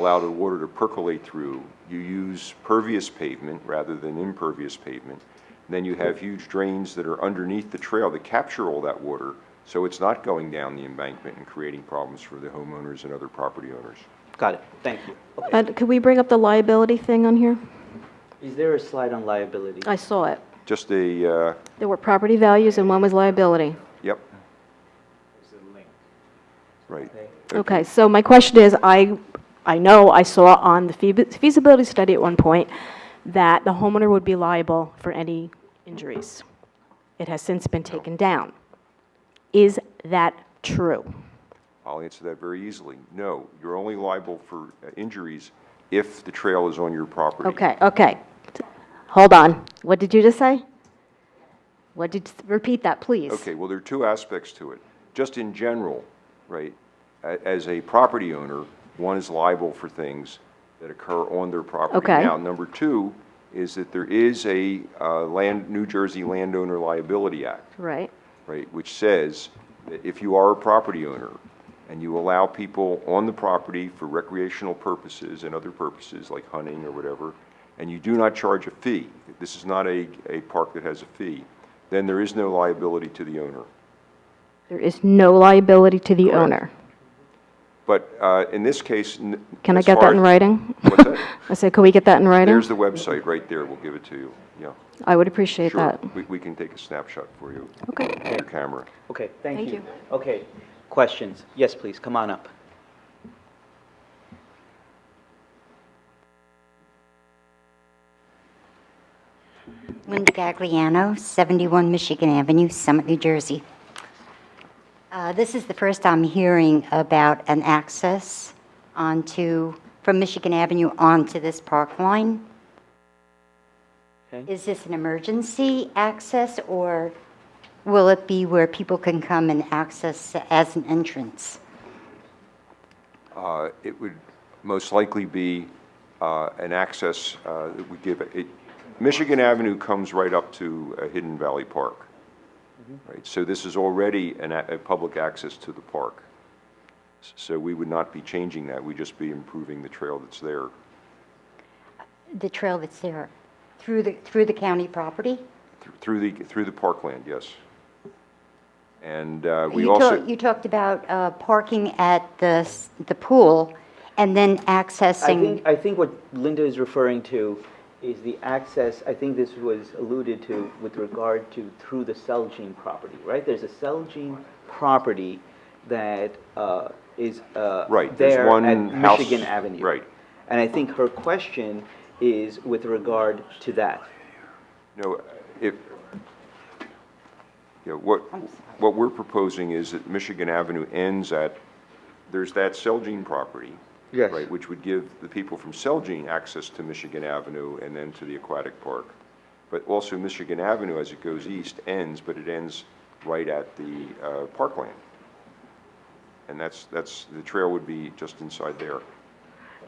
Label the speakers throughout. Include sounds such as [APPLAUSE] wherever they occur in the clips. Speaker 1: allow the water to percolate through. You use pervious pavement rather than impervious pavement. Then you have huge drains that are underneath the trail that capture all that water, so it's not going down the embankment and creating problems for the homeowners and other property owners.
Speaker 2: Got it, thank you. Okay.
Speaker 3: Uh, Could we bring up the liability thing on here?
Speaker 2: Is there a slide on liability?
Speaker 3: I saw it.
Speaker 1: Just a, uh,
Speaker 3: There were property values and one was liability.
Speaker 1: yep. Right.
Speaker 3: Okay, so my question is, I, I know I saw on the feasi- feasibility study at one point that the homeowner would be liable for any injuries. It has since been taken down. Is that true?
Speaker 1: I'll answer that very easily. No, you're only liable for uh, injuries if the trail is on your property.
Speaker 3: Okay, okay. Hold on. What did you just say? What did, repeat that, please.
Speaker 1: Okay, well, there are two aspects to it. Just in general, right, a- as a property owner, one is liable for things that occur on their property.
Speaker 3: Okay.
Speaker 1: Now, number two is that there is a uh, land, New Jersey Landowner Liability Act,
Speaker 3: Right,
Speaker 1: right, which says that if you are a property owner and you allow people on the property for recreational purposes and other purposes like hunting or whatever, and you do not charge a fee, this is not a, a park that has a fee, then there is no liability to the owner.
Speaker 3: there is no liability to the owner.
Speaker 1: But uh, in this case, n-
Speaker 3: Can I
Speaker 1: as
Speaker 3: get
Speaker 1: far
Speaker 3: that in
Speaker 1: as-
Speaker 3: writing?
Speaker 1: What's that?
Speaker 3: [LAUGHS] I said, could we get that in writing?
Speaker 1: There's the website right there. We'll give it to you. Yeah,
Speaker 3: I would appreciate
Speaker 1: sure.
Speaker 3: that.
Speaker 1: We, we can take a snapshot for you.
Speaker 3: Okay.
Speaker 1: with Your camera.
Speaker 2: Okay, thank
Speaker 3: Thank
Speaker 2: you.
Speaker 3: you.
Speaker 2: Okay, questions? Yes, please, come on up.
Speaker 4: Linda Gagliano, 71 Michigan Avenue, Summit, New Jersey. Uh, This is the first I'm hearing about an access onto, from Michigan Avenue onto this park line.
Speaker 2: Okay.
Speaker 4: Is this an emergency access, or will it be where people can come and access as an entrance?
Speaker 1: Uh, It would most likely be uh, an access uh, that we give, it, Michigan Avenue comes right up to uh, Hidden Valley Park. Right, so this is already an, a a public access to the park. S- So we would not be changing that, we'd just be improving the trail that's there.
Speaker 4: The trail that's there, through the, through the county property?
Speaker 1: Th- Through the, through the parkland, yes. And uh, we
Speaker 4: You
Speaker 1: also.
Speaker 4: talk- You talked about uh, parking at the, s- the pool and then
Speaker 2: I
Speaker 4: accessing,
Speaker 2: think, I think what Linda is referring to is the access, I think this was alluded to with regard to through the Celgene property, right? There's a Celgene property that uh, is uh,
Speaker 1: Right, there's
Speaker 2: there
Speaker 1: one
Speaker 2: at
Speaker 1: house-
Speaker 2: Michigan Avenue.
Speaker 1: right.
Speaker 2: And I think her question is with regard to that.
Speaker 1: No, if, yeah, what, what we're proposing is that Michigan Avenue ends at, there's that Celgene property.
Speaker 2: Yes.
Speaker 1: Right, which would give the people from Celgene access to Michigan Avenue and then to the aquatic park. But also Michigan Avenue, as it goes east, ends, but it ends right at the uh, parkland. And that's, that's, the trail would be just inside there.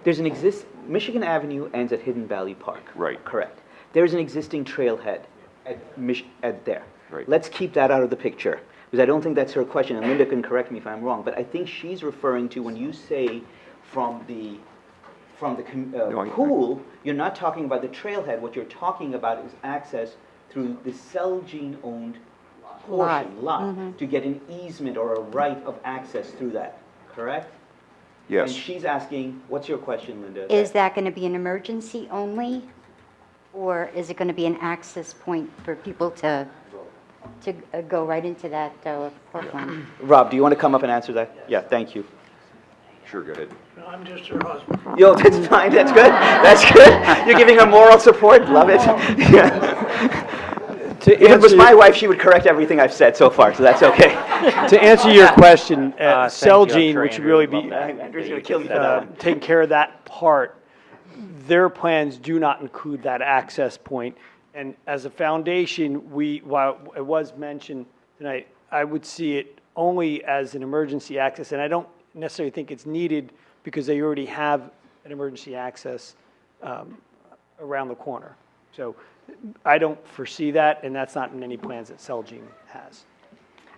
Speaker 2: There's an exist, Michigan Avenue ends at Hidden Valley Park.
Speaker 1: Right.
Speaker 2: Correct. There's an existing trailhead at Mich, at there.
Speaker 1: Right.
Speaker 2: Let's keep that out of the picture, because I don't think that's her question, and Linda can correct me if I'm wrong, but I think she's referring to when you say from the, from the com-
Speaker 1: No, I-
Speaker 2: uh,
Speaker 1: I-
Speaker 2: pool, you're not talking about the trailhead, what you're talking about is access through the Celgene-owned portion, lot, to get an easement or a right of access through that, correct?
Speaker 1: Yes.
Speaker 2: And she's asking, what's your question, Linda?
Speaker 4: is that going to be an emergency only? Or is it going to be an access point for people to, to uh, go right into that uh, park line?
Speaker 2: Rob, do you want to come up and answer that? Yeah, thank you.
Speaker 1: Sure, go ahead.
Speaker 5: No, I'm just her husband.
Speaker 2: Yo, that's fine, that's good, that's good. You're giving her moral support, love it. Yeah. If it was my wife, she would correct everything I've said so far, so that's okay.
Speaker 6: To
Speaker 2: [LAUGHS]
Speaker 6: answer your question, uh,
Speaker 7: thank you. I'm
Speaker 6: Celgene,
Speaker 7: sure
Speaker 6: which would
Speaker 7: Andrew
Speaker 6: really
Speaker 7: would love
Speaker 6: be
Speaker 7: that.
Speaker 2: Andrew's gonna kill me for
Speaker 6: uh,
Speaker 2: that one.
Speaker 6: taking care of that part, their plans do not include that access point. And as a foundation, we, while it was mentioned tonight, I would see it only as an emergency access. And I don't necessarily think it's needed because they already have an emergency access um, around the corner. So I don't foresee that, and that's not in any plans that Celgene has.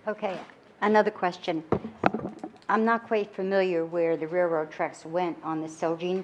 Speaker 4: Okay, another question. I'm not quite familiar where the railroad tracks went on the Celgene